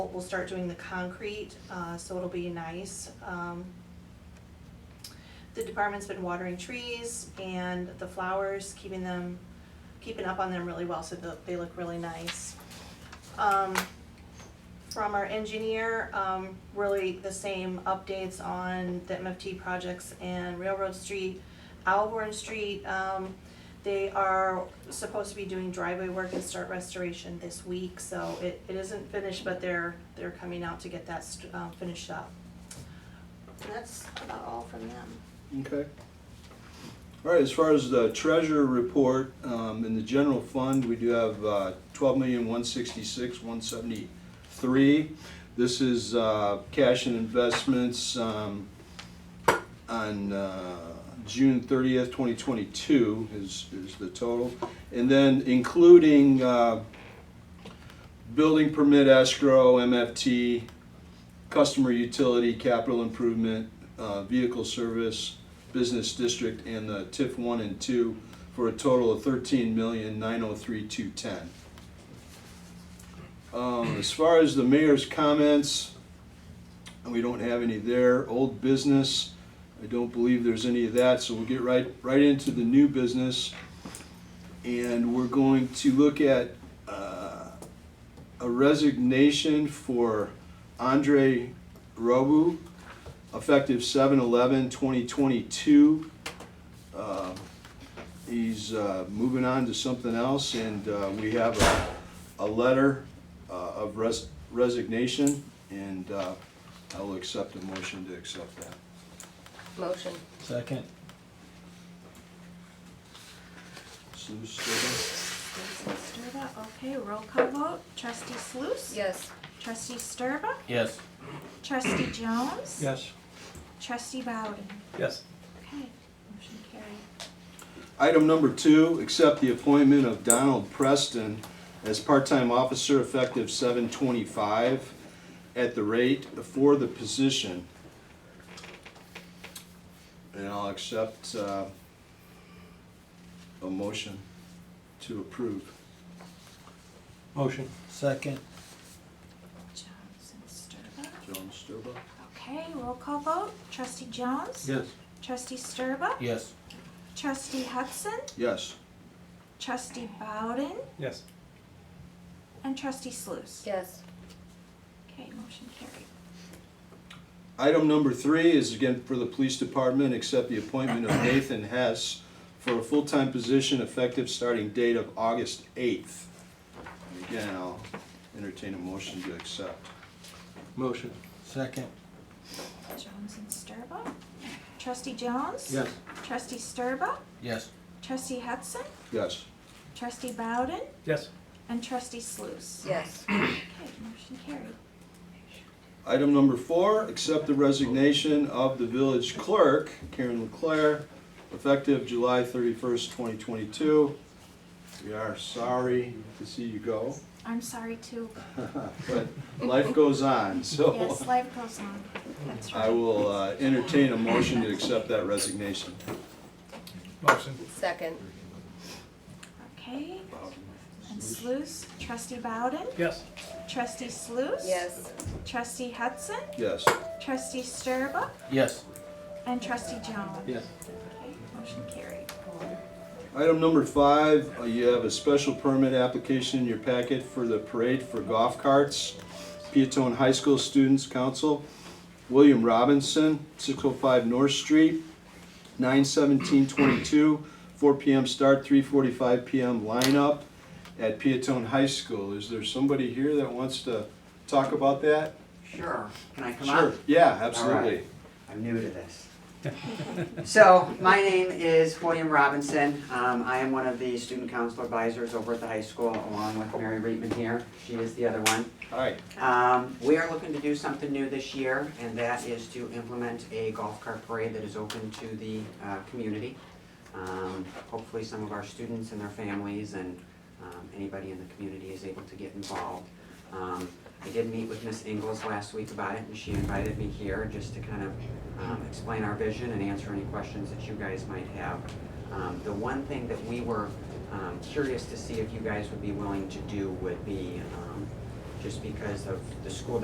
We'll start doing the concrete, uh, so it'll be nice. Um, The department's been watering trees and the flowers, keeping them, keeping up on them really well, so that they look really nice. Um, From our engineer, um, really the same updates on the MFT projects and Railroad Street, Alborn Street. Um, They are supposed to be doing driveway work and start restoration this week, so it, it isn't finished, but they're, they're coming out to get that, st- uh, finished up. And that's about all from them. Okay. All right, as far as the treasurer report, um, in the general fund, we do have, uh, twelve million, one sixty-six, one seventy-three. This is, uh, cash and investments, um, on, uh, June thirtieth, twenty twenty-two is, is the total. And then including, uh, building permit escrow, MFT, customer utility, capital improvement, uh, vehicle service, business district, and the TIF one and two for a total of thirteen million nine oh three two ten. Um, as far as the mayor's comments, we don't have any there. Old business, I don't believe there's any of that, so we'll get right, right into the new business. And we're going to look at, uh, a resignation for Andre Robu, effective 7 2022 Uh, He's uh, moving on to something else, and uh, we have a, a letter uh, of res- resignation, and uh, I'll accept a motion to accept that. Motion. Second. Sue, second? Sturba, okay, roll call vote. Trustee Sluse? Yes. Trustee Sturba? Yes. Trustee Jones? Yes. Trustee Bowden? Yes. Okay, motion carried. Item number two, accept the appointment of Donald Preston as part-time officer effective seven twenty-five at the rate for the position. And I'll accept, uh, a motion to approve. Motion. Second. Jones and Sturba. Jones, Sturba? Okay, roll call vote. Trustee Jones? Yes. Trustee Sturba? Yes. Trustee Hudson? Yes. Trustee Bowden? Yes. And Trustee Sluse? Yes. Okay, motion carried. Item number three is again for the police department, accept the appointment of Nathan Hess for a full-time position effective starting date of August eighth. Again, I'll entertain a motion to accept. Motion. Second. Jones and Sturba? Trustee Jones? Yes. Trustee Sturba? Yes. Trustee Hudson? Yes. Trustee Bowden? Yes. And Trustee Sluse? Yes. Okay, motion carried. Item number four, accept the resignation of the village clerk, Karen Leclerc, effective July thirty-first, twenty twenty-two. We are sorry to see you go, I'm sorry too. but life goes on, so. Yes, life goes on. That's I right. will uh, entertain a motion to accept that resignation. Motion, Second. Okay, and Sluse, trustee Bowden, yes. trustee Sluse. Yes. Trustee Hudson, Yes. trustee Sturba, Yes. and trustee Jones. Yes. Okay, motion carried. Item number five, uh, you have a special permit application in your packet for the parade for golf carts. Peatone High School Students Council, William Robinson, 605 North Street, 91722, 4 PM start, 3:45 PM lineup at Peatone High School. Is there somebody here that wants to talk about that? Sure, can I come up? Sure. Yeah, absolutely. right. I'm new to this. So, my name is William Robinson. Um, I am one of the student council advisors over at the high school, along with Mary Reitman here. She is the other one. Hi. Um, we are looking to do something new this year, and that is to implement a golf cart parade that is open to the, uh, community. Um, hopefully some of our students and their families and, um, anybody in the community is able to get involved. Um, I did meet with Miss Ingles last week about it, and she invited me here just to kind of, um, explain our vision and answer any questions that you guys might have. Um, the one thing that we were, um, curious to see if you guys would be willing to do would be, um, just because of the school